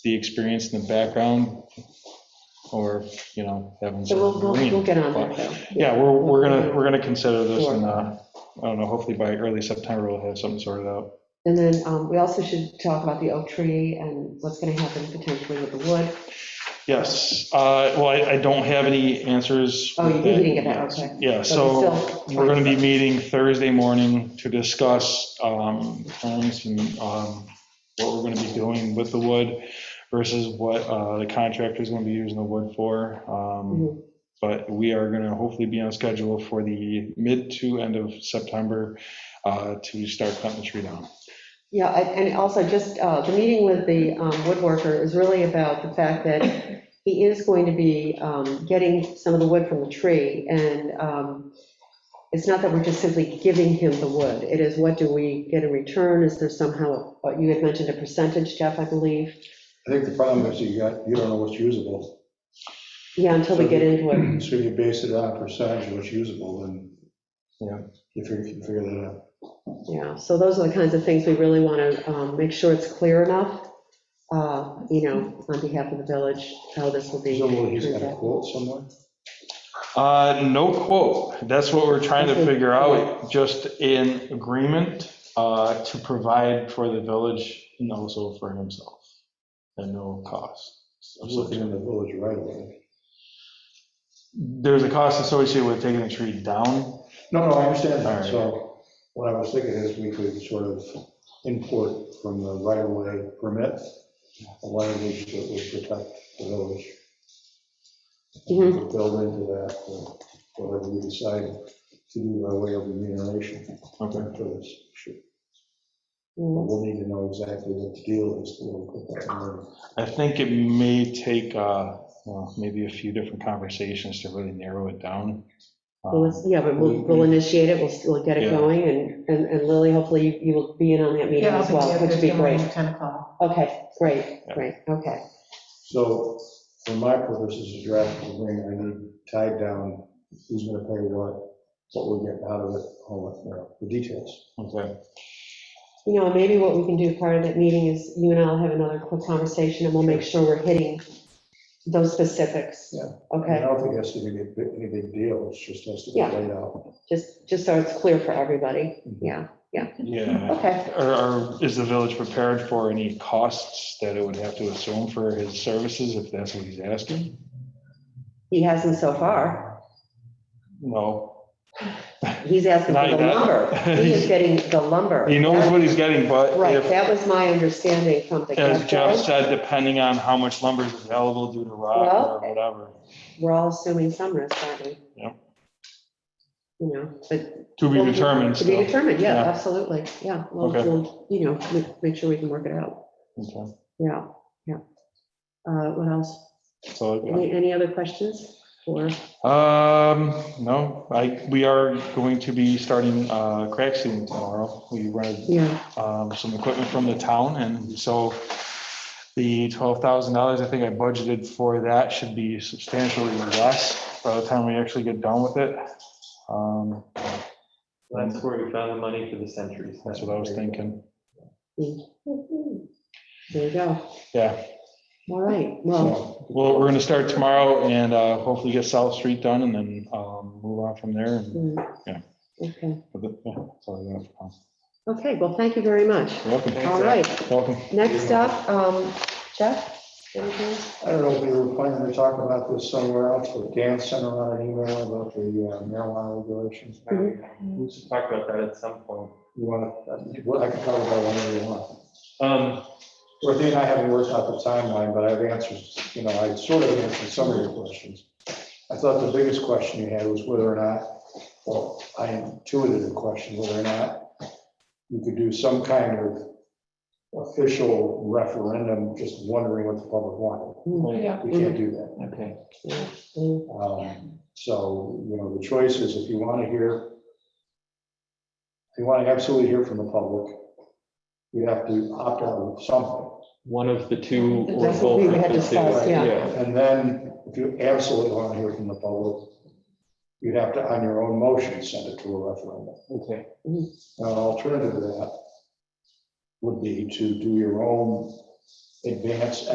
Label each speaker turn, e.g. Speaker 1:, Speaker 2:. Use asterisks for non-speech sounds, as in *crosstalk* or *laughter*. Speaker 1: the experience and the background, or, you know, Evan's.
Speaker 2: So we'll, we'll we'll get on that, though.
Speaker 1: Yeah, we're, we're gonna, we're gonna consider this, and, uh, I don't know, hopefully by early September, we'll have something sorted out.
Speaker 2: And then um, we also should talk about the oak tree and what's going to happen potentially with the wood.
Speaker 1: Yes, uh, well, I, I don't have any answers.
Speaker 2: Oh, you
Speaker 1: with
Speaker 2: didn't get that, okay.
Speaker 1: Yeah,
Speaker 2: But
Speaker 1: so.
Speaker 2: still-
Speaker 1: We're going to be meeting Thursday morning to discuss um, terms and um, what we're going to be doing with the wood versus what uh, the contractor's going to be using the wood for. Um,
Speaker 2: Mhm.
Speaker 1: But we are going to hopefully be on schedule for the mid to end of September uh, to start cutting the tree down.
Speaker 2: Yeah, I- and also just, uh, the meeting with the um, woodworker is really about the fact that he is going to be um, getting some of the wood from the tree. And um, it's not that we're just simply giving him the wood. It is what do we get in return? Is there somehow, uh, you had mentioned a percentage, Jeff, I believe?
Speaker 3: I think the problem is you got, you don't know what's usable.
Speaker 2: Yeah, until we get into it.
Speaker 3: So you base it on a percentage of what's usable and, you know, you figure, you figure that out.
Speaker 2: Yeah, so those are the kinds of things we really want to um, make sure it's clear enough, uh, you know, on behalf of the village, how this will be.
Speaker 3: So he's got a
Speaker 2: treated.
Speaker 3: quote somewhere?
Speaker 1: Uh, No quote. That's what we're trying to figure out, just in agreement uh, to provide for the village and also for himself at no cost.
Speaker 3: I was looking in the village right away.
Speaker 1: There's a cost associated with taking the tree down.
Speaker 3: No, no, I understand
Speaker 1: All
Speaker 3: that.
Speaker 1: right.
Speaker 3: So what I was thinking is we could sort of import from the right of way permit, a language that would protect the village.
Speaker 2: Mhm.
Speaker 3: And Build into that, uh, whatever we decide to do by way of remuneration
Speaker 1: Okay.
Speaker 3: for this issue. But
Speaker 2: Mm,
Speaker 3: We'll need to know exactly what the deal is. to look at that number.
Speaker 1: I think it may take, uh, well, maybe a few different conversations to really narrow it down.
Speaker 2: well, it's- Yeah, but we'll, we'll initiate it, we'll, we'll get it
Speaker 1: Yeah.
Speaker 2: going, and, and and Lily, hopefully you- you will be in on that meeting
Speaker 4: Yeah,
Speaker 2: as well, which would be great.
Speaker 4: 10 o'clock.
Speaker 2: Okay, great, great, okay.
Speaker 3: So for my purposes of drafting the agreement, I need tied down who's going to pay what, what we're getting out of it, all that, you know, the details.
Speaker 1: Um, Okay.
Speaker 2: You know, maybe what we can do part of that meeting is you and I'll have another quick conversation, and we'll make sure we're hitting those specifics.
Speaker 3: Yeah. I
Speaker 2: Okay,
Speaker 3: don't think that's going to be any big deal, it just has to be
Speaker 2: Yeah.
Speaker 3: laid out.
Speaker 2: just, just so it's clear for everybody, yeah,
Speaker 1: Yeah.
Speaker 2: okay.
Speaker 1: Or- Or is the village prepared for any costs that it would have to assume for his services if that's what he's asking?
Speaker 2: He hasn't so far.
Speaker 1: No,
Speaker 2: He's asking for
Speaker 1: Not
Speaker 2: the
Speaker 1: yet.
Speaker 2: lumber.
Speaker 1: *laughs*
Speaker 2: He is getting the lumber.
Speaker 1: He knows what he's getting, but
Speaker 2: Right,
Speaker 1: if,
Speaker 2: that was my understanding from the
Speaker 1: as Jeff
Speaker 2: get-go.
Speaker 1: said, depending on how much lumber is available due to rock or
Speaker 2: Well-
Speaker 1: whatever.
Speaker 2: We're all assuming some risk, aren't we?
Speaker 1: Yep.
Speaker 2: You know, but.
Speaker 1: To be determined
Speaker 2: To be
Speaker 1: still.
Speaker 2: determined, yeah,
Speaker 1: Yeah.
Speaker 2: absolutely, yeah. We'll,
Speaker 1: Okay.
Speaker 2: we'll, you know, make, make sure we can work it out,
Speaker 1: Okay,
Speaker 2: yeah, yeah. Uh, what else?
Speaker 1: that's all I
Speaker 2: Any, any other questions or?
Speaker 1: got. Um, no, I, we are going to be starting, uh, crack sealing tomorrow. We rented,
Speaker 2: Yeah,
Speaker 1: um, some equipment from the town and so the twelve thousand dollars I think I budgeted for that should be substantially less by the time we actually get done with it. Um,
Speaker 5: That's where we found the money for the centuries.
Speaker 1: that's what I was thinking.
Speaker 2: there you go.
Speaker 1: Yeah,
Speaker 2: All right, well,
Speaker 3: Um,
Speaker 1: So, Well, we're gonna start tomorrow and uh, hopefully get South Street done and then um, move on from there. and-
Speaker 2: mm,
Speaker 1: Yeah.
Speaker 2: okay,
Speaker 1: but the- yeah, that's all I got for now.
Speaker 2: okay, well, thank you very much.
Speaker 1: Welcome.
Speaker 2: All right.
Speaker 1: Welcome.
Speaker 2: Next up, um, Jeff, anything?
Speaker 3: I don't know if we were planning to talk about this somewhere else, but Dan sent around an email about the uh, marijuana regulations.
Speaker 2: Mm-hmm.
Speaker 5: We should talk about that at some point.
Speaker 3: You want to, well, I can talk about whenever you want.
Speaker 5: Um,
Speaker 3: Dorothy and I haven't worked out the timeline, but I've answered, you know, I sort of answered some of your questions. I thought the biggest question you had was whether or not, well, I intuited the question, whether or not you could do some kind of official referendum, just wondering what the public wanted.
Speaker 5: yeah,
Speaker 3: We can't do that.
Speaker 5: okay.
Speaker 2: Mm,
Speaker 3: Um, So, you know, the choice is if you want to hear, if you want to absolutely hear from the public, you have to opt out of something.
Speaker 5: One of the two or
Speaker 2: That's what
Speaker 5: both.
Speaker 2: we
Speaker 5: of
Speaker 2: had
Speaker 5: the two.
Speaker 2: discussed,
Speaker 3: yeah.
Speaker 5: Yeah,
Speaker 3: And then, if you absolutely want to hear from the public, you'd have to, on your own motion, send it to a referendum.
Speaker 5: okay.
Speaker 3: Now, An alternative to that would be to do your own advance